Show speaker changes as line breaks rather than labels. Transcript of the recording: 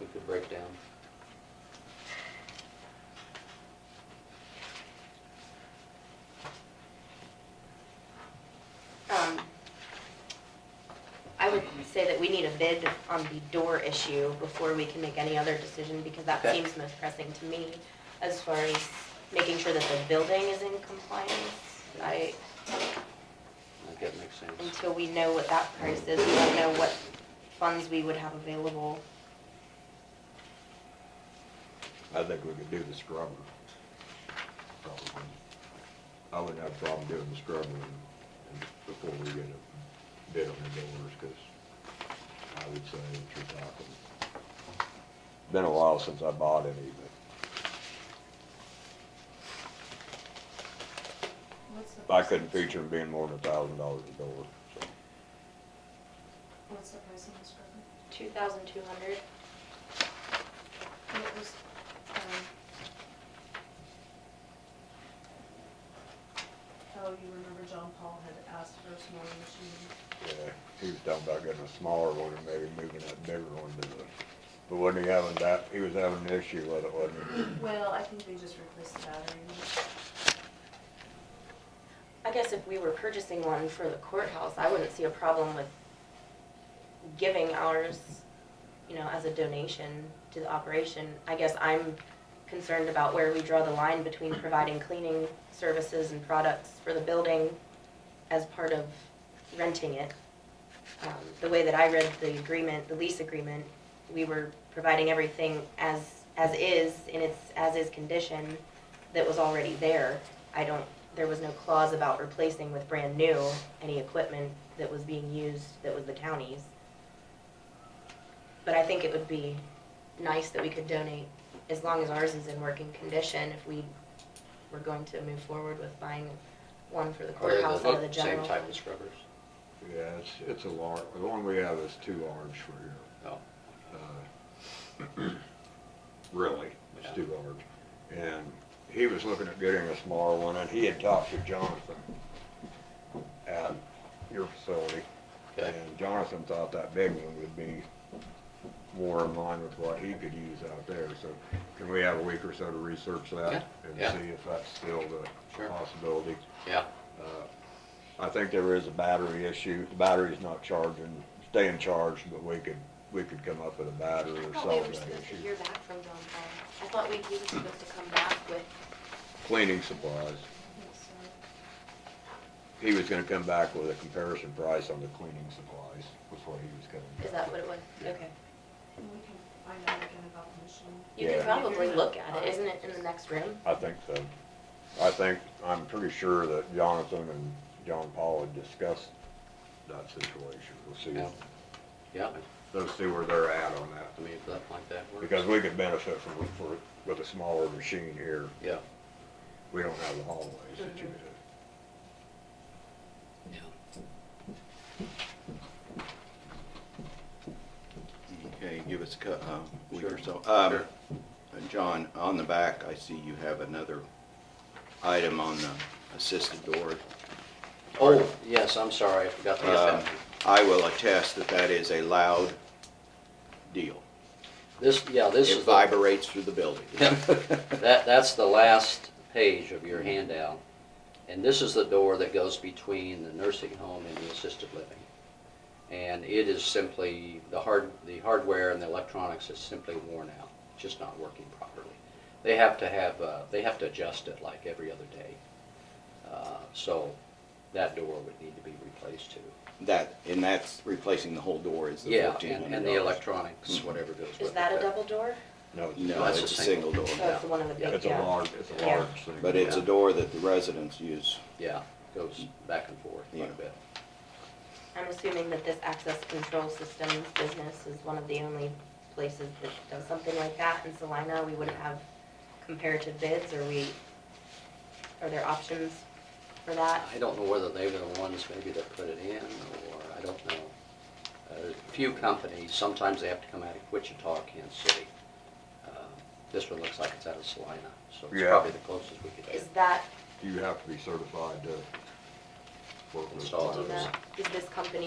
we could break down.
Um, I would say that we need a bid on the door issue before we can make any other decision, because that
Okay.
seems most pressing to me as far as making sure that the building is in compliance. I,
I think that makes sense.
until we know what that price is, we don't know what funds we would have available.
I think we could do the scrubber. Probably. I wouldn't have a problem doing the scrubber and- and before we get a bid on the doors, because I would say that you're talking. Been a while since I bought any,
What's the
but I
price
couldn't
of-
picture them being more than a thousand dollars a door, so.
What's the price of this rubber?
Two thousand two hundred?
What was, um... Oh, you remember John Paul had asked for a smaller machine?
Yeah, he was talking about getting a smaller one and maybe moving that bigger one to the, but wasn't he having that, he was having an issue with it, wasn't he?
Well, I think they just replaced the battery. in it.
I guess if we were purchasing one for the courthouse, I wouldn't see a problem with giving ours, you know, as a donation to the operation. I guess I'm concerned about where we draw the line between providing cleaning services and products for the building as part of renting it. Um, The way that I read the agreement, the lease agreement, we were providing everything as, as is, in its as-is condition that was already there. I don't, there was no clause about replacing with brand new any equipment that was being used that was the county's. But I think it would be nice that we could donate, as long as ours is in working condition, if we were going to move forward with buying one for the
Are they
courthouse out of the
Oh, look-
general.
Same type as scrubbers?
Yeah, it's, it's a large, the one we have is too large for here,
No.
uh, really, it's too large. And he was looking at getting a smaller one, and he had talked to Jonathan at your facility.
Okay.
And Jonathan thought that big one would be more in line with what he could use out there, so can we have a week or so to research that?
Yeah,
And
yeah.
see if that's still the
Sure.
possibility?
Yeah,
Uh, I think there is a battery issue. The battery's not charging, staying charged, but we could, we could come up with a battery
I
or
thought we
solve
were
that
supposed to
issue.
hear back from John Paul. I thought we, he was supposed to come back with,
Cleaning supplies.
I think so.
He was gonna come back with a comparison price on the cleaning supplies before he was coming.
is that what it was?
Yeah.
Okay.
And we can find out again about the machine.
You could
Yeah.
probably look at it, isn't it in the next room?
I think so. I think, I'm pretty sure that Jonathan and John Paul had discussed that situation. We'll see,
Yeah. yeah,
let's see where they're at on that.
I mean, if that, like that works.
Because we could benefit from, for, with a smaller machine here.
Yeah,
We don't have the hallways that you
Mhm.
do.
yeah.
Okay, give us a cou- uh, week or so.
Sure,
Um,
sure.
uh, John, on the back, I see you have another item on the assisted door.
Oh, yes, I'm sorry, I forgot to get
Um,
that.
I will attest that that is a loud deal.
This, yeah, this is,
It
the-
vibrates through the building.
Yeah. that, that's the last page of your handout. And this is the door that goes between the nursing home and the assisted living. And it is simply, the hard, the hardware and the electronics is simply worn out, just not working properly. They have to have, uh, they have to adjust it like every other day. Uh, So that door would need to be replaced too.
That, and that's replacing the whole door is the
Yeah,
fourteen hundred
and, and the electronics,
Mhm.
whatever goes with it.
Is that a
but-
double door?
No, it's
No,
not.
it's a single door,
Oh, it's the one in the big, yeah.
It's a large, it's a
Yeah.
large thing.
but it's a door that the residents use.
Yeah, goes back and forth quite
Yeah.
a bit.
I'm assuming that this access control systems business is one of the only places that does something like that in Salina. We wouldn't have comparative bids, or we, are there options for that?
I don't know whether they were the ones maybe that put it in, or, I don't know. Uh, A Few companies, sometimes they have to come out of Wichita, Kansas City. Uh, This one looks like it's out of Salina, so it's
Yeah.
probably the closest we could
Is
get.
that,
You have to be certified to work with.
Install
do you
those.
know, is this company